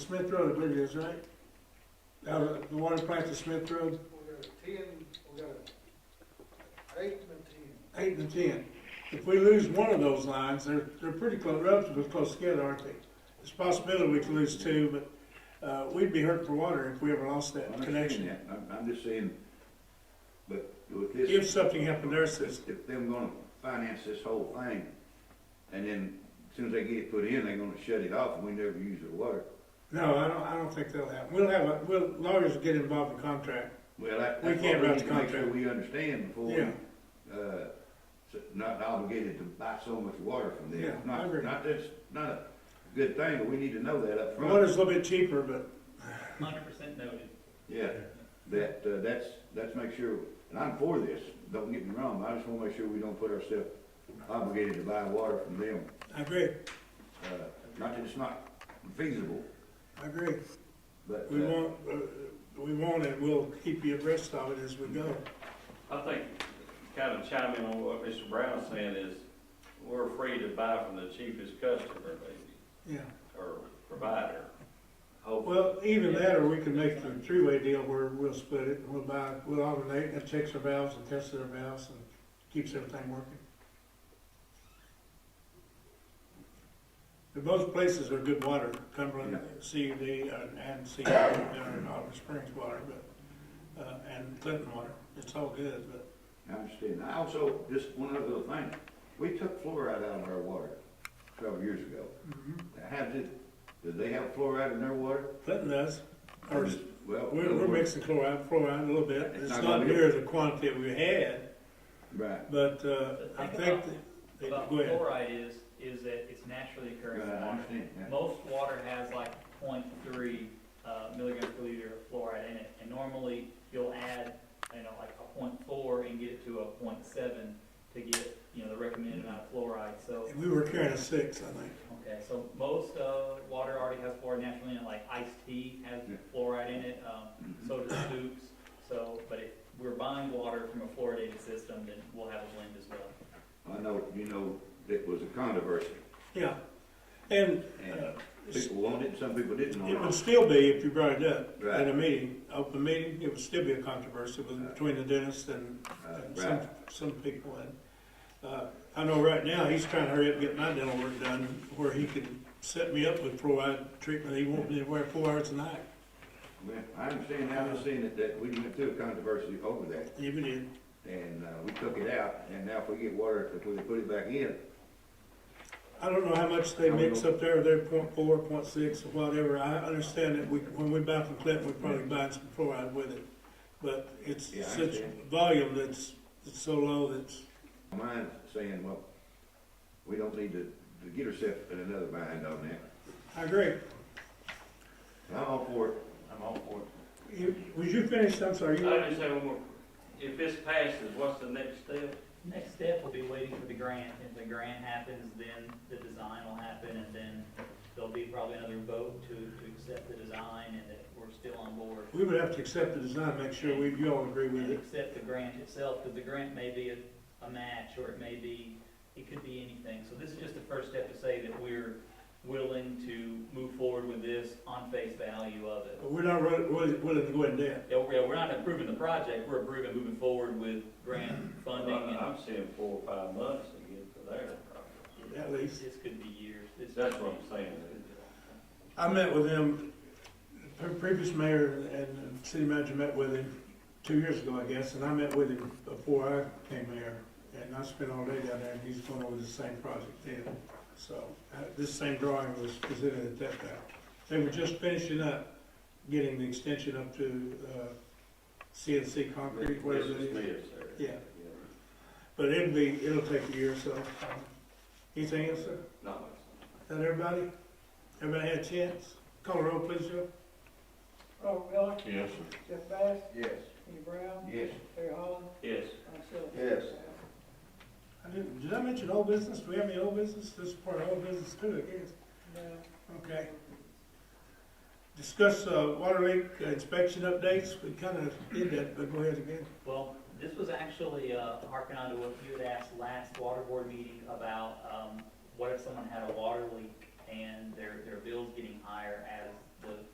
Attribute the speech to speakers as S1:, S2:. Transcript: S1: Smith Road, I believe it is, right? Out of the water plant to Smith Road,
S2: We got a ten, we got a eight and a ten.
S1: eight and ten. If we lose one of those lines, they're, they're pretty close, relatively close together, aren't they? It's a possibility we could lose two, but, uh, we'd be hurt for water if we ever lost
S3: I
S1: that
S3: understand
S1: connection.
S3: that. I'm, I'm just saying, but with this.
S1: If something happened to their system,
S3: If they're gonna finance this whole thing, and then as soon as they get it put in, they're gonna shut it off, and we never use the water.
S1: no, I don't, I don't think that'll happen. We'll have, a we'll, lawyers will get involved in contract.
S3: Well, that,
S1: We
S3: that's
S1: can't
S3: what we
S1: write
S3: need
S1: the
S3: to make sure
S1: contract.
S3: we understand before, we,
S1: Yeah.
S3: uh, s- not obligated to buy so much water from them.
S1: Yeah, I
S3: Not-
S1: agree.
S3: Not that's, not a good thing, but we need to know that up front.
S1: Water's a little bit cheaper, but
S4: Hundred percent noted.
S3: Yeah, that, uh, that's, that's make sure, and I'm for this, don't get me wrong, I just wanna make sure we don't put ourselves obligated to buy water from them.
S1: I agree,
S3: Uh, not that it's not feasible,
S1: I agree.
S3: but.
S1: We
S3: uh,
S1: won't, uh, we won't, and we'll keep you abreast of it as we go.
S5: I think, kind of chiming on what Mr. Brown's saying is, we're free to buy from the cheapest customer, maybe,
S1: Yeah.
S5: or provider. Hopefully.
S1: Well, even that, or we can make the three-way deal where we'll split it, and we'll buy, we'll alternate, and checks our valves and tests our valves and keeps everything working. And both places are good water, Cumberland CUD and- uh, and CUD down in Oliver Springs water, but, uh, and Clinton water, it's all good, but
S3: I understand. I also, just one other little thing, we took fluoride out of our water several years ago.
S1: Mm-hmm.
S3: How did, did they have fluoride in their water?
S1: Clinton does. Or,
S3: Well.
S1: we're, we're mixing chloride, fluoride a little bit,
S3: It's
S1: it's
S3: not
S1: not
S3: gonna be-
S1: near the quantity we had,
S3: Right,
S1: but, uh, I
S4: Think
S1: think,
S4: about-
S1: that-
S4: About
S1: go ahead.
S4: fluoride is, is that it's naturally
S3: right,
S4: occurring in
S3: I
S4: water.
S3: understand, yeah.
S4: Most water has like 0.3 uh, milligrams per liter of fluoride in it, and normally you'll add, you know, like a 0.4 and get it to a 0.7 to get, you know, the recommended amount of fluoride. So,
S1: We were carrying a six, I think.
S4: okay, so most uh, water already has fluoride naturally in it, like iced tea has
S3: Yeah.
S4: fluoride in it, um,
S3: Mhm.
S4: so does soups. So, but if we're buying water from a fluoridated system, then we'll have a blend as well.
S3: I know, you know, it was a controversy,
S1: Yeah, and
S3: and
S1: uh,
S3: people wanted it, some people didn't
S1: it would
S3: want it.
S1: still be, if you brought it up at a
S3: Right.
S1: meeting, open meeting, it would still be a controversy with- between the dentist and
S3: Uh,
S1: and some,
S3: Right,
S1: some people. And uh, I know right now, he's trying to hurry up and get my dental work done where he can set me up with fluoride treatment. He won't be aware four hours a night,
S3: Well, I understand, I understand that, that we went through a controversy over that.
S1: even if,
S3: And, uh, we took it out, and now if we get water, if we put it back in,
S1: I don't know how much they
S3: How we
S1: mix up there, they're point four, point six, or whatever. I understand that we, when we buy from Clinton, we probably buy some fluoride with it. But it's
S3: Yeah, I
S1: such
S3: understand.
S1: volume that's, it's so low that's,
S3: Mine's saying, well, we don't need to, to get ourselves in another bind on that.
S1: I agree.
S3: I'm all for it.
S5: I'm all for it.
S1: You, was you finished? I'm sorry. You
S5: I just have one more, if this passes, what's the next step?
S4: Next step will be waiting for the grant. If the grant happens, then the design will happen, and then there'll be probably another vote to, to accept the design and that we're still on board.
S1: we would have to accept the design, make sure we, you all agree with
S4: And
S1: it.
S4: accept the grant itself, because the grant may be a, a match, or it may be, it could be anything. So this is just the first step to say that we're willing to move forward with this on face value of it.
S1: But we're not really, really willing to go in debt.
S4: Yeah, we're, we're not approving the project, we're approving moving forward with grant funding, and
S5: I'm seeing four or five months to get to there.
S1: At least.
S4: this could be years. This-
S5: That's what I'm saying.
S1: I met with him, the pre- previous mayor and the city manager met with him two years ago, I guess, and I met with him before I came mayor. And I spent all day down there and he's going over the same project then. So, uh, this same drawing was presented at that time. They were just finishing up, getting the extension up to, uh, CNC concrete, whatever it
S5: Mr.
S1: is.
S5: Smith, sir.
S1: Yeah. But it'll be, it'll take a year or so. Anything else, sir?
S5: Not much.
S1: Is that everybody? Everybody had a chance? Call the roll, please, Joe.
S2: Robert Miller,
S3: Yes,
S2: Jeff Bass,
S3: Yes.
S2: Kenny Brown,
S3: Yes.
S2: Terry Holland,
S5: Yes,
S2: myself.
S3: Yes.
S1: I didn't, did I mention old business? Do we have any old business? This is part of old business too, I guess.
S2: Now,
S1: Okay. Discuss, uh, water leak inspection updates. We kind of did that, but go ahead again.
S4: Well, this was actually, uh, harking on to what you had asked last water board meeting about, um, what if someone had a water leak and their, their bill's getting higher as the